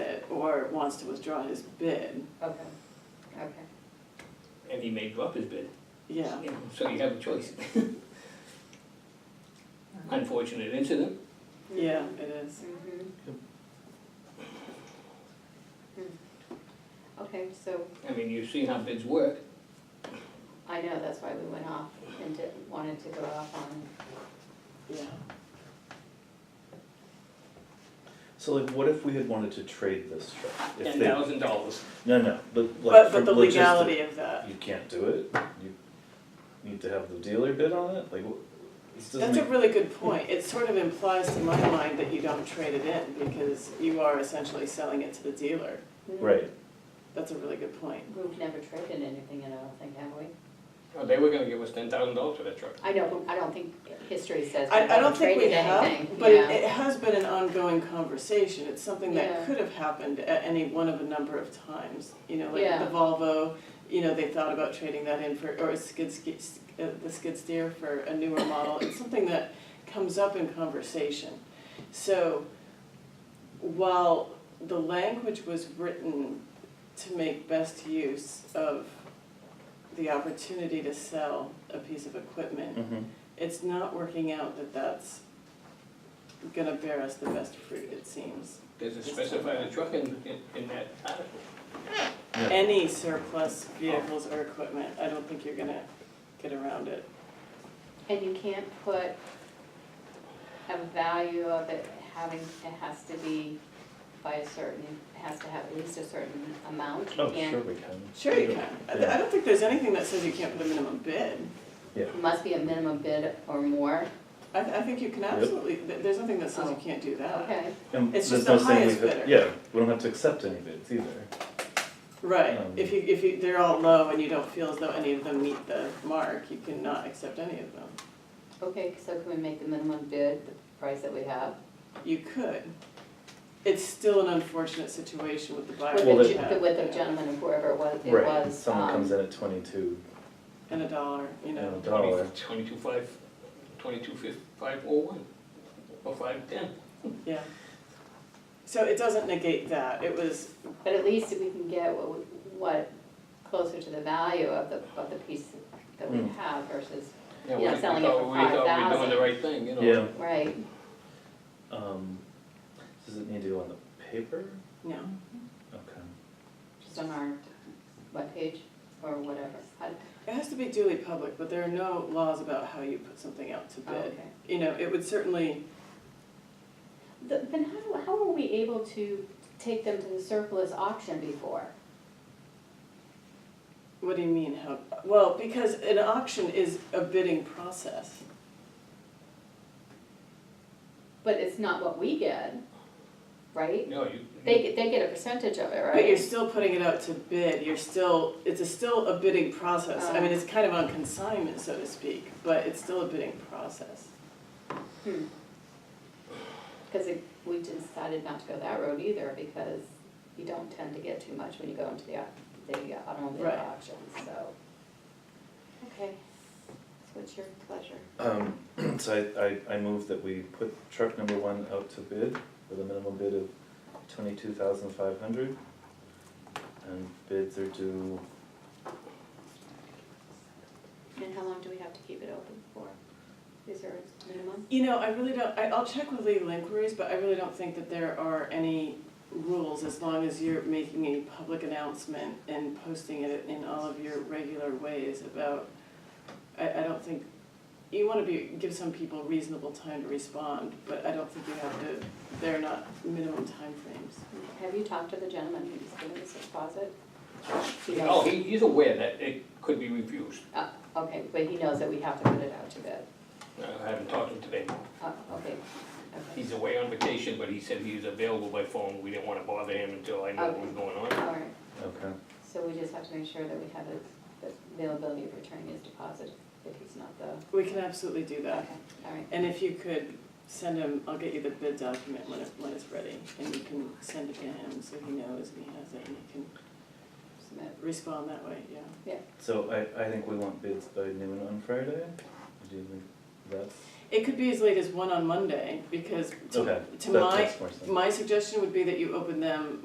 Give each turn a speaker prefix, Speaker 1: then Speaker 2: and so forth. Speaker 1: Robert uh, wants to withdraw his bid,
Speaker 2: Okay, okay.
Speaker 3: and he may drop his bid,
Speaker 1: yeah.
Speaker 3: so you have a choice. Unfortunate incident,
Speaker 1: Yeah, it is.
Speaker 2: Mhm. Hmm. Okay, so
Speaker 3: I mean, you've seen how bids work,
Speaker 2: I know, that's why we went off and didn't, wanted to go off on,
Speaker 1: Yeah.
Speaker 4: So like, what if we had wanted to trade this truck? If
Speaker 3: ten
Speaker 4: they-
Speaker 3: thousand dollars.
Speaker 4: No, no, but like.
Speaker 1: But,
Speaker 4: for
Speaker 1: but the
Speaker 4: logistic-
Speaker 1: legality of that,
Speaker 4: You can't do it, you need to have the dealer bid on it, like, wh- this doesn't
Speaker 1: that's a
Speaker 4: make,
Speaker 1: really good point. It sort of implies to my mind that you don't trade it in because you are essentially selling it to the dealer.
Speaker 4: right,
Speaker 1: That's a really good point.
Speaker 2: we've never traded anything, in, I don't think, have we?
Speaker 3: Oh, they were gonna give us ten thousand dollars for that truck.
Speaker 2: I know, but I don't think history says
Speaker 1: I,
Speaker 2: we've
Speaker 1: I don't
Speaker 2: ever
Speaker 1: think we
Speaker 2: traded
Speaker 1: have,
Speaker 2: anything,
Speaker 1: but it,
Speaker 2: yeah.
Speaker 1: it has been an ongoing conversation. It's something
Speaker 2: Yeah.
Speaker 1: that could have happened at any one of a number of times. You know, like
Speaker 2: Yeah.
Speaker 1: the Volvo, you know, they thought about trading that in for, or a skid, ski- s- uh, the skid steer for a newer model. It's something that comes up in conversation. So while the language was written to make best use of the opportunity to sell a piece of equipment,
Speaker 4: mhm,
Speaker 1: it's not working out that that's gonna bear us the best fruit, it seems.
Speaker 3: There's a specified truck in, in, in that article.
Speaker 4: yeah.
Speaker 1: Any surplus vehicles or equipment, I don't think you're gonna get around it.
Speaker 2: And you can't put a value of it having, it has to be by a certain, it has to have at least a certain amount. You
Speaker 4: Oh,
Speaker 2: can't-
Speaker 4: sure we can.
Speaker 1: Sure you can, I, I don't think there's anything that says you can't put a minimum bid.
Speaker 2: It Must be a minimum bid or more,
Speaker 1: I, I think you can absolutely, th- there's nothing that says you can't do that.
Speaker 2: okay.
Speaker 4: And
Speaker 1: It's
Speaker 4: there's
Speaker 1: just the
Speaker 4: no saying we
Speaker 1: highest
Speaker 4: could-
Speaker 1: bidder.
Speaker 4: Yeah, we don't have to accept any bids either,
Speaker 1: Right,
Speaker 4: Um,
Speaker 1: if you, if you, they're all low and you don't feel as though any of them meet the mark, you cannot accept any of them.
Speaker 2: Okay, so can we make the minimum bid the price that we have?
Speaker 1: You could. It's still an unfortunate situation with the buyer.
Speaker 2: With
Speaker 4: Well,
Speaker 2: the,
Speaker 4: that-
Speaker 2: gen- with the gentleman or whoever it was, it
Speaker 4: right,
Speaker 2: was,
Speaker 4: someone comes
Speaker 2: um,
Speaker 4: in at twenty-two,
Speaker 1: And a dollar, you
Speaker 4: you
Speaker 1: know.
Speaker 4: know, dollar,
Speaker 3: Twenty-two five, twenty-two fif, five oh one, or five ten.
Speaker 1: Yeah. So it doesn't negate that, it was,
Speaker 2: but at least we can get what, we- what, closer to the value of the, of the piece that we
Speaker 4: Mm.
Speaker 2: have versus, Yeah,
Speaker 3: Yeah, we- we
Speaker 2: selling it
Speaker 3: thought-
Speaker 2: for
Speaker 3: We thought we were doing
Speaker 2: 5,000.
Speaker 3: the right thing, you know.
Speaker 4: yeah,
Speaker 2: right?
Speaker 4: um, does it need to go on the paper?
Speaker 1: no,
Speaker 4: Okay.
Speaker 2: Just on our webpage or whatever. How-
Speaker 1: it has to be duly public, but there are no laws about how you put something out to
Speaker 2: oh,
Speaker 1: bid.
Speaker 2: okay.
Speaker 1: You know, it would certainly,
Speaker 2: The- Then how, how were we able to take them to the surplus auction before?
Speaker 1: what do you mean, how, well, because an auction is a bidding process.
Speaker 2: But it's not what we get, right?
Speaker 3: No, you.
Speaker 2: They, get- they get a percentage of it, right?
Speaker 1: But you're still putting it out to bid, you're still, it's a still a bidding process. I
Speaker 2: Oh.
Speaker 1: mean, it's kind of on consignment, so to speak, but it's still a bidding process.
Speaker 2: hmm. Because it- we decided not to go that road either, because you don't tend to get too much when you go into the, au- the automobile
Speaker 1: Right.
Speaker 2: auction, so. Okay, so what's your pleasure?
Speaker 4: Um, so I, I, I move that we put truck number one out to bid with a minimum bid of twenty-two thousand five hundred. And bids are due,
Speaker 2: And how long do we have to keep it open for? Is there a minimum?
Speaker 1: You know, I really don't, I, I'll check with legal inquiries, but I really don't think that there are any rules as long as you're making a public announcement and posting it in all of your regular ways about, I, I don't think, you wanna be, give some people reasonable time to respond, but I don't think you have to, they're not minimum timeframes.
Speaker 2: Have you talked to the gentleman who's giving us the deposit? He
Speaker 3: Oh,
Speaker 2: knows,
Speaker 3: he, he's aware that it could be refused.
Speaker 2: uh, okay, but he knows that we have to put it out to bid.
Speaker 3: I haven't talked to him today.
Speaker 2: Uh, okay, okay,
Speaker 3: He's away on vacation, but he said he was available by phone. We didn't wanna bother him until I knew what was going on.
Speaker 2: all right.
Speaker 4: okay,
Speaker 2: So we just have to make sure that we have his, the availability of returning his deposit if he's not the,
Speaker 1: We can absolutely do
Speaker 2: okay,
Speaker 1: that,
Speaker 2: all right.
Speaker 1: and if you could send him, I'll get you the bid document when it, when it's ready, and you can send it to him so he knows and he has it and he can
Speaker 2: Submit.
Speaker 1: respond that way, yeah.
Speaker 4: so I, I think we want bids by noon on Friday, do you think that's,
Speaker 1: It could be as late as one on Monday, because to,
Speaker 4: okay,
Speaker 1: to
Speaker 4: that
Speaker 1: my,
Speaker 4: makes more sense.
Speaker 1: my suggestion would be that you open them